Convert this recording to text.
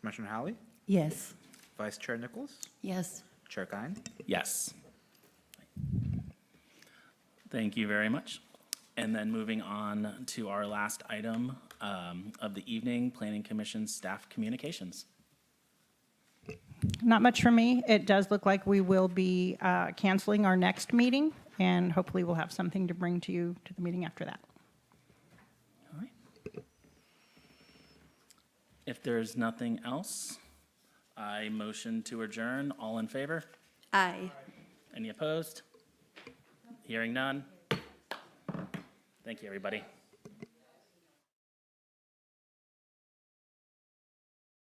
Commissioner Hallie, Yes. Vice Chair Nichols, Yes. Chair Kine. Yes. Thank you very much. And then moving on to our last item um, of the evening, Planning Commission Staff Communications. Not much for me. It does look like we will be uh, canceling our next meeting, and hopefully we'll have something to bring to you to the meeting after that. All right. If there's nothing else, I motion to adjourn. All in favor? Aye. Any opposed? Hearing none? Thank you, everybody.